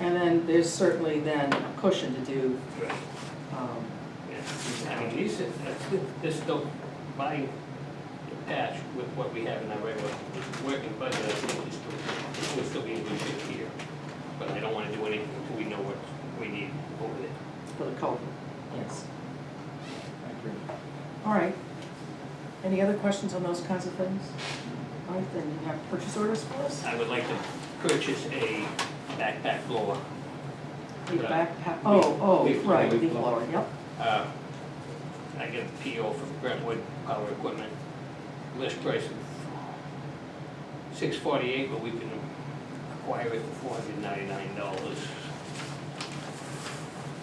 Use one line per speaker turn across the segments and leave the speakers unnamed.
And then there's certainly then a cushion to do,
Right.
um,
Yeah. I mean, these, are- that's- this is still my patch with what we have in our regular working budget, I think it's still, it would still be in good shape here. But I don't wanna do anything until we know what we need over there.
for the culvert, yes.
Thank you.
All right. Any other questions on those kinds of things? All right, then you have purchase orders for us?
I would like to purchase a backpack blower.
The
Yeah.
backpack, oh, oh,
Leaf blower,
right,
leaf
leaf
blower.
blower, yep.
Uh, I get a PO from Brentwood Power Equipment, list price of six forty-eight, but we can acquire it for four hundred ninety-nine dollars.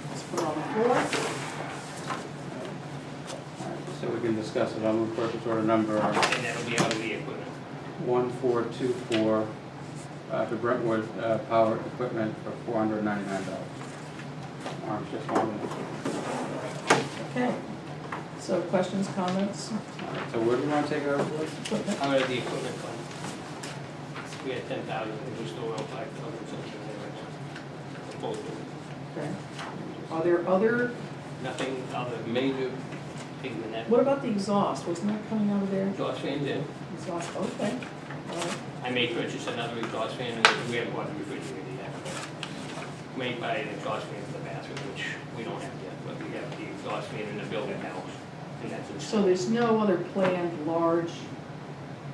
Let's put it on the floor.
So we can discuss it. I'll move purchase order number
And that'll be out of the equipment.
1424 uh, to Brentwood uh, Power Equipment for $499. Arms just wanted to-
Okay. So questions, comments?
all right, So where do we want to take over?
Equipment?
Out of the equipment fund. We had ten thousand, we just throw out five thousand something there. Both of them.
Okay. Are there other,
Nothing other major thing than that.
what about the exhaust? Wasn't that coming out of there?
Exhaust fans in.
Exhaust, okay. All right.
I may purchase another exhaust fan, and we have one refrigerator yet. Made by an exhaust fan for the bathroom, which we don't have yet, but we have the exhaust fan in the building now, and that's
So
installed.
there's no other planned large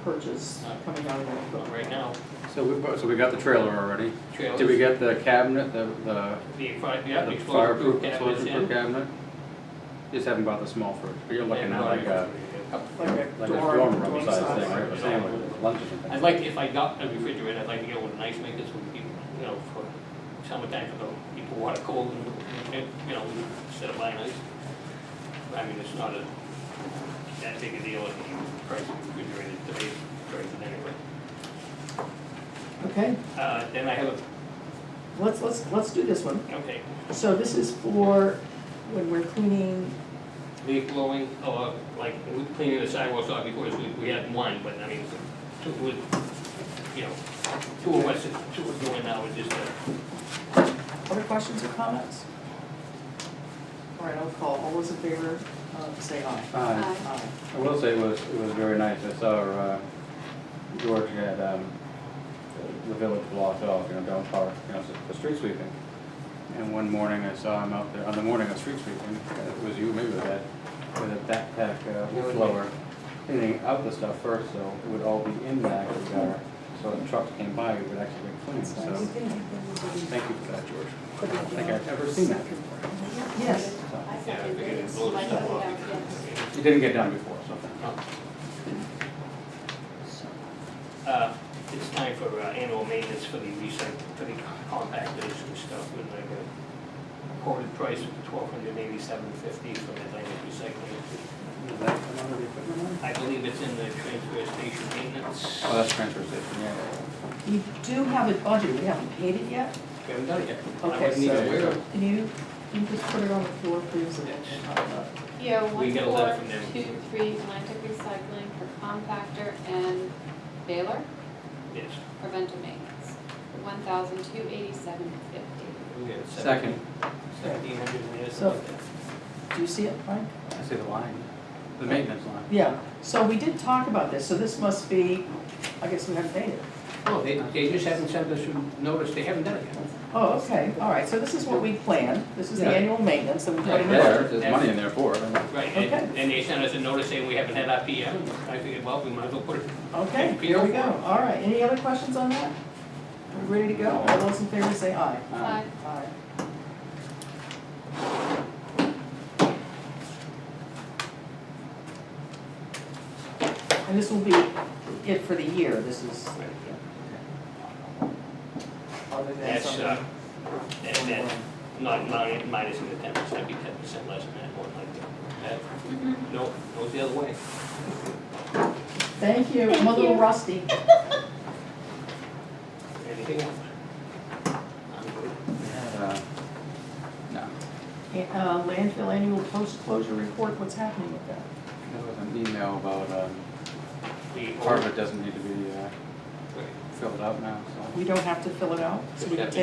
purchase coming out of that
But
equipment?
right now,
So we, so we got the trailer already.
trailers.
Did we get the cabinet, the, the
The, fire- yeah, the
the
explosion-proof
fireproof
cabinets in.
explosion-proof cabinet? Just haven't bought the small first, but you're looking
And
at like a,
Like a
like a
dorm-
dorm room
dorm
size
size.
thing, right, for sandwiches, lunches and
I'd
things.
like, to- if I got a refrigerator, I'd like to get one nice, make this one, people, you know, for summertime, for the people who want it cold, and, and, you know, instead of buying ice. I mean, it's not a, that big a deal, if you price of refrigerator, today's prices anyway.
Okay,
Uh, then I have a,
let's, let's, let's do this one.
okay,
So this is for when we're cleaning,
leaf blowing, or like, we cleaning the sidewalks off before, we, we had one, but I mean, two, would, you know, two of us, two of doing now, is just a
other questions or comments? All right, I'll call, all those in favor, uh, say aye.
Uh,
Aye.
I will say it was, it was very nice. I saw, uh, George had, um, the village blocked off, you know, down park, you know, for street sweeping. And one morning I saw him out there, on the morning of street sweeping, it was you maybe with that, with a backpack, uh,
Yeah,
leaf blower, cleaning out the stuff first, so it would all be in that jar. So when trucks came by, it would actually be clean,
That's
so
nice.
thank you for that, George. I don't think I've ever seen that before.
Yes.
So,
Yeah, I figured it'd blow the stuff off. because-
It didn't get done before, so thank
Oh.
you.
Uh, It's time for uh, annual maintenance for the recyc, for the compactors and stuff, with like a quoted price of twelve hundred eighty-seven fifty for Atlantic Recycling.
Is that another equipment line?
I believe it's in the transfer station maintenance.
Oh, that's transfer station, yeah.
We do have a budget, we haven't paid it yet.
We haven't done it yet. I
Okay,
wasn't even
so-
aware of it.
Can you, can you just put it on the floor, please, and then we'll talk about it?
Yeah,
We
one,
get a letter
four,
from them.
two, three, Atlantic Recycling for compactor and baler
Yes,
for rental maintenance, one thousand two eighty-seven fifty.
we got
Second.
Seventeen hundred and eighty
So-
something.
Do you see it, Frank?
I see the line, the maintenance line.
Yeah, so we did talk about this, so this must be, I guess we haven't paid it.
No, Oh, they, they just haven't sent us a notice, they haven't done it yet.
Oh, okay, all right, so this is what we planned, this is the
Yeah.
annual maintenance that we put
Right
in the
there,
budget.
there's money in there for it. Um,
Right, and, and they sent us a notice saying we haven't had our PM. I figured, well, we might as well put it
Okay,
Thank you.
here we go, all right, any other questions on that? Are we ready to go? All those in favor say aye.
Uh,
Aye. And this will be it for the year, this is, other than
That's,
something.
uh, that, that, not minus, minus the ten percent, be ten percent less than that, one like that. That, no, goes the other way.
Thank you, I'm a little rusty.
Anything else? I'm good.
uh, No,
Uh, Landfill annual post-closure report, what's happening with that?
there was an email about, um,
The
part of
old-
it doesn't need to be uh,
Right.
filled out now, so.
We don't have to fill it out, so we can
Yeah.
take